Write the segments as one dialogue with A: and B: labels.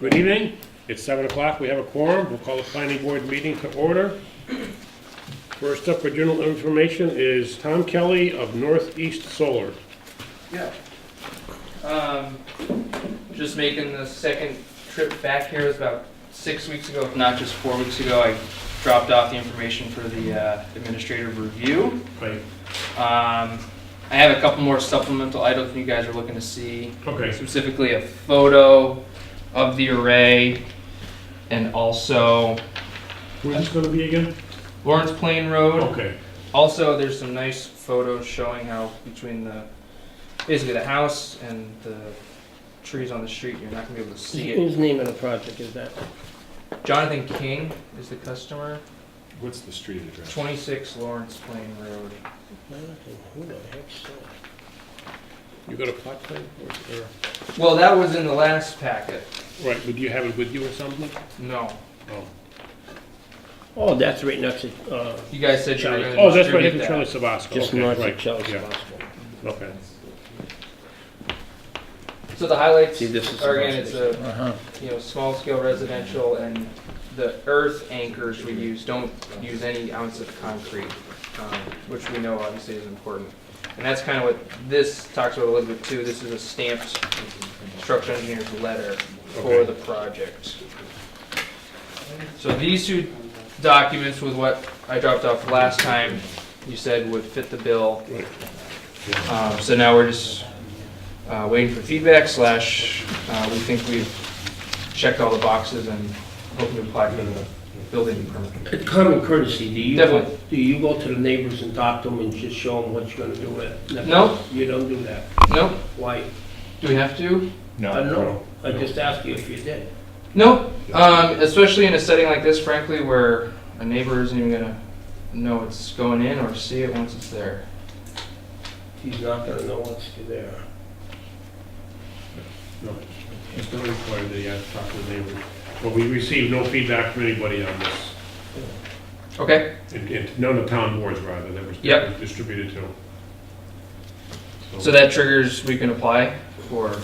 A: Good evening. It's seven o'clock. We have a quorum. We'll call the planning board meeting to order. First up for general information is Tom Kelly of Northeast Solar.
B: Yeah. Um, just making the second trip back here, it was about six weeks ago, if not just four weeks ago, I dropped off the information for the uh, administrative review.
A: Right.
B: Um, I have a couple more supplemental items you guys are looking to see,
A: Okay.
B: specifically a photo of the array, and also
A: Where's this gonna be again?
B: Lawrence Plain Road.
A: Okay.
B: Also, there's some nice photos showing how between the basically the house and the trees on the street, you're not gonna be able to see it.
C: Whose name of the project is that?
B: Jonathan King is the customer,
D: What's the street address?
B: 26 Lawrence Plain Road.
C: Who the heck's that?
A: You got a plot plan? or- or-
B: Well, that was in the last packet.
A: Right, would you have it with you or something?
B: No,
A: Oh,
C: Oh, that's right next to, uh,
B: you guys said you were gonna
A: Oh, that's right,
B: distribute
A: it's
B: that.
A: Charlie Sabasco.
C: just
A: Okay,
C: north of
A: right.
C: Chelsea
A: Yeah,
C: Hospital.
A: okay.
B: So the highlights
C: See, this is
B: are again, it's
C: supposed
B: a you know small scale residential and the earth anchors we use don't use any ounce of concrete, um, which we know obviously is important. And that's kind of what this talks about a little bit too. This is a stamped structural engineer's letter for
A: Okay.
B: the project. So these two documents with what I dropped off last time, you said would fit the bill. Um, So now we're just uh, waiting for feedback slash, uh, we think we've checked all the boxes and hoping to apply for the building permit.
C: It's common courtesy, do you,
B: Definitely.
C: do you go to the neighbors and talk to them and just show them what you're gonna do with it?
B: No.
C: You don't do that,
B: Nope,
C: why?
B: do we have to?
C: I don't know, I just asked you if you did.
B: Nope, Um, especially in a setting like this frankly, where a neighbor isn't even gonna know it's going in or see it once it's there.
C: He's not gonna know what's there.
A: No, it's not required that you have to talk to the neighbors. But we received no feedback from anybody on this.
B: Okay,
A: And- and none of town boards, rather, that was that
B: Yep.
A: was distributed to.
B: so that triggers, we can apply for,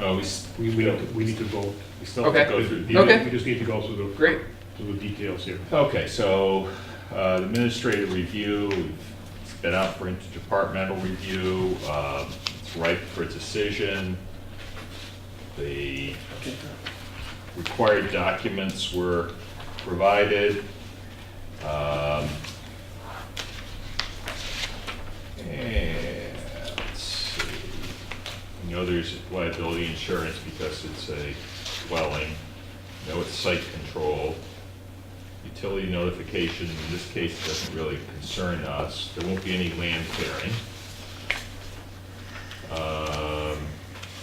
D: Oh, we, s-
A: uh, We, we don't, we need to vote.
D: we still have to
B: Okay.
D: go through. the-
B: Okay.
A: We just need to go through the,
B: great,
A: through the details here.
D: Okay, so, uh, the administrative review, it's been out for interdepartmental review, um, it's ripe for decision. The required documents were provided. Um, And, let's see, we know there's liability insurance because it's a dwelling, No, it's site control. Utility notification, in this case, doesn't really concern us, there won't be any land clearing. Um,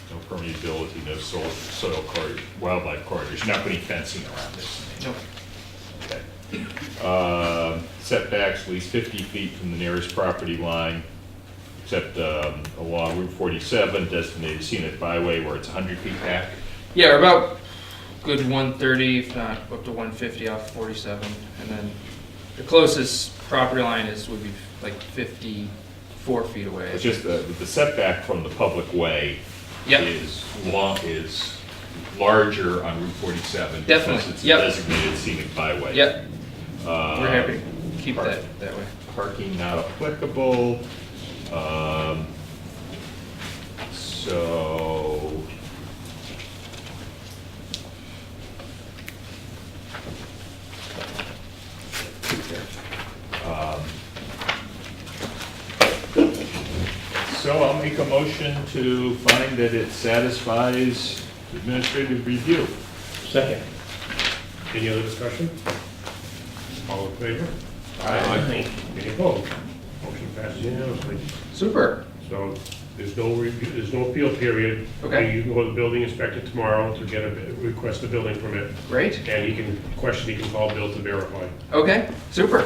D: No permeability, no soil, soil corridor, wildlife corridors, not putting fencing around this.
B: Nope.
D: Okay. Um, Setbacks, at least 50 feet from the nearest property line, except um, along Route 47, designated scenic byway where it's 100 feet back.
B: yeah, we're about good one thirty, if not up to one fifty off forty-seven, and then the closest property line is, would be like fifty-four feet away.
D: It's just the the setback from the public way
B: Yep,
D: is long, is larger on Route 47.
B: Definitely,
D: Because it's a
B: yep.
D: designated scenic byway.
B: yep,
D: Um,
B: we're happy to keep that that way.
D: Parking not applicable. Um, So, um, so I'll make a motion to find that it satisfies administrative review.
C: Second.
A: Any other discussion? All in favor?
C: Aye.
A: Any opposed? Motion passes unanimously.
B: Super,
A: So there's no review, there's no appeal period.
B: Okay.
A: You can go to the building inspector tomorrow to get a, request a building permit,
B: great,
A: and he can, question, he can call Bill to verify.
B: okay, super,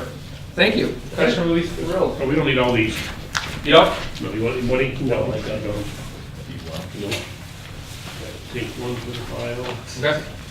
B: thank you. Customer will be thrilled.
A: Oh, we don't need all these.
B: Yep,
A: No, you want, what do you, no, I don't.
D: You want?
A: No. Take one for the file.
B: okay,